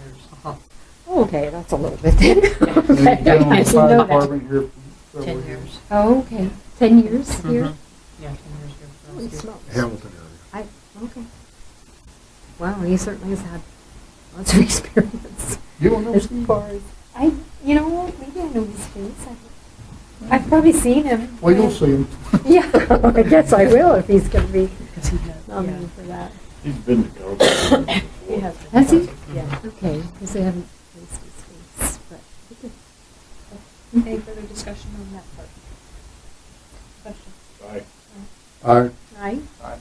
Uh-huh. Huh. Okay, that's a little bit then. Okay, You've been on I didn't know the fire that. department here. for Ten over a year. years. Oh, okay, 10 years Mm-hmm. here? Mhm. Yeah, ten years here. for Holy us here. smokes. Hamilton area. I, okay. Wow, he certainly has had lots of experience. You don't know It's- Steve Byers? I, you know, what, maybe I know his face. I- I've probably seen him. Well, you'll see him. Yeah, I guess I will if he's going to be Because he has, yeah. nominated for that. He's been to government He before. has. Has he? Yeah. Okay, because I haven't placed his face, but. Any further discussion on that part? Question? Aye. Aye. Aye?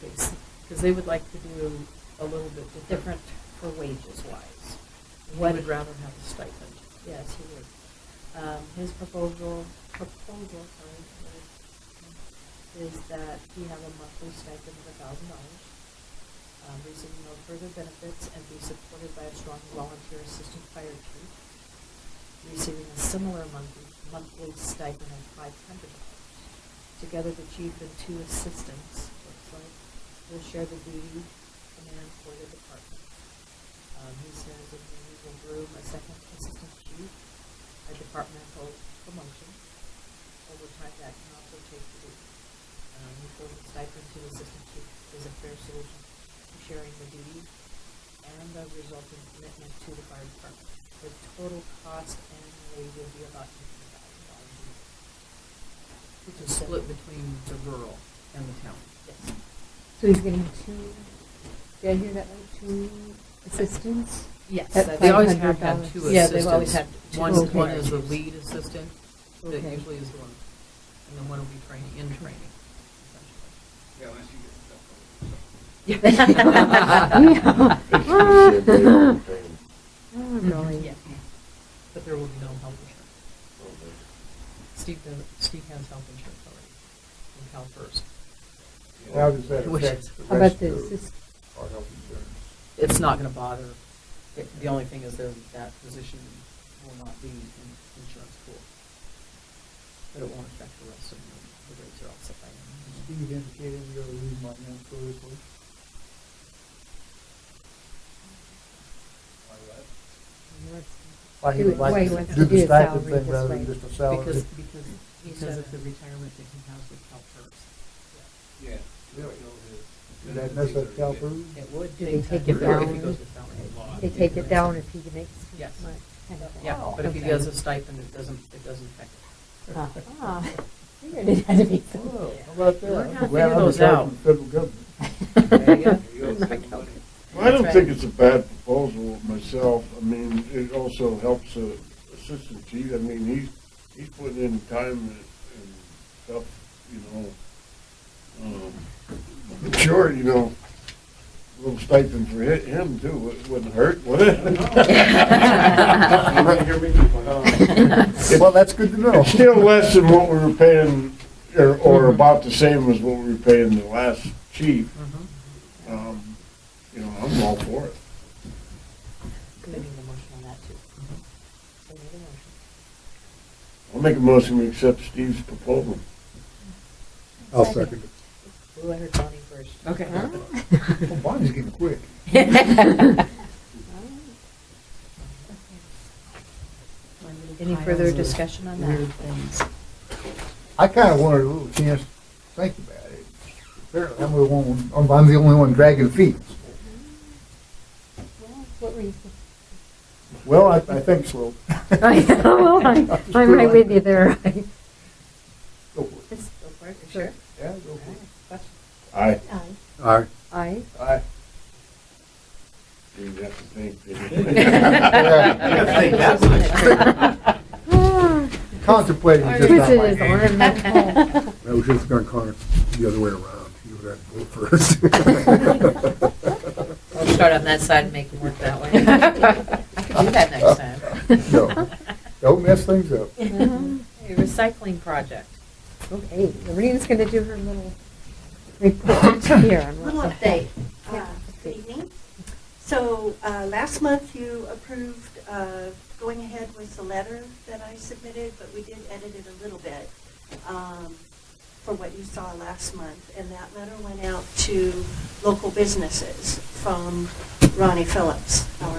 Because they would like to do a little bit different for wages wise. He would rather have a stipend. Yes, he would. Um, his proposal, proposal, sorry, is that he have a monthly stipend of a thousand dollars, um, receive no further benefits, and be supported by a strong volunteer assistant fire chief, receiving a similar monthly, monthly stipend of five hundred dollars. Together, the chief and two assistants, looks like, will share the duty of command for the department. Um, he serves in the usual room, a second assistant chief, a departmental promotion. Over time, that can also take the duty. Um, he feels the stipend to the assistant chief is a fair solution to sharing the duty and the resulting commitment to the fire department. The total cost annually will be about fifty thousand dollars a year. Which is split between the rural and the town. Yes. So he's getting two, did I hear that right, two assistants? Yes, At that- Uh, they always have $500. had two Yeah, they've always assistants. had two One, assistants. one is the lead assistant, that Okay. usually is the one, and then one will be training, in training, essentially. Yeah. It's the same Oh, really? Mm-hmm. Yeah. But there will be no health insurance. Steve, does- Steve has health insurance already, from Cal First. How does that Which- affect the How rest about the of assist, our health insurance? It's not going to bother, It- the only thing is that that position will not be in insurance pool. But it won't affect the rest of the, the rates are all set by. Does Steve indicated we ought to leave my name for this one? Why he would Why like he to wants do to do the a stipend salary thing this rather way. than just a salary. Because, because, because of the retirement that he has with CalPERS. Yeah. Does that mess up Calpers? It would. Do they take time If he it down? goes to salary. They take it down if he makes too much, Yes. kind of thing. Yeah, but if he Okay. does a stipend, it doesn't, it doesn't affect it. Ah, figured it had to be something. Whoa, How about We're gonna that? figure those out. the federal government. There you go. Well, I don't That's think right. it's a bad proposal myself. I mean, it also helps the assistant chief. I mean, he's, he's putting in time and and stuff, you know. Um, but Sure, you know, a little stipend for hi- him too, it wouldn't hurt, would it? Well, that's good to know. It's still less than what we were paying, or, or about the same as what we were paying the last chief. Mhm. Um, You know, I'm all for it. They need a motion on that too. They need a motion. I'll make a motion to accept Steve's proposal. I'll second it. Who entered Bonnie first? Okay. Mm-hmm. Well, Bonnie's getting quick. Any further discussion on that? I kind of wanted a little chance to think about it. Apparently, I'm the one, I'm- I'm the only one dragging feet. Well, What were you Well, I, I think so. thinking? Well, I'm I'm right with you there. Go for it. Go for it, sure. Yeah, go for it. Question? Aye. Aye. Aye. Aye. Aye. You have to think. É. think that Ah, Contemplating is just not Twisted my his thing. arm. that's all. I was just gonna call it the other way around. You would have to vote first. We'll start on that side and make them work that way. I could do that next time. No. Don't mess things up. Hey, Recycling project. Okay, Lorena's going to do her little report here. on Little what's update. Yeah. Uh, Good evening. So uh, last month you approved uh, going ahead with the letter that I submitted, but we did edit it a little bit um, for what you saw last month. And that letter went out to local businesses from Ronnie Phillips, our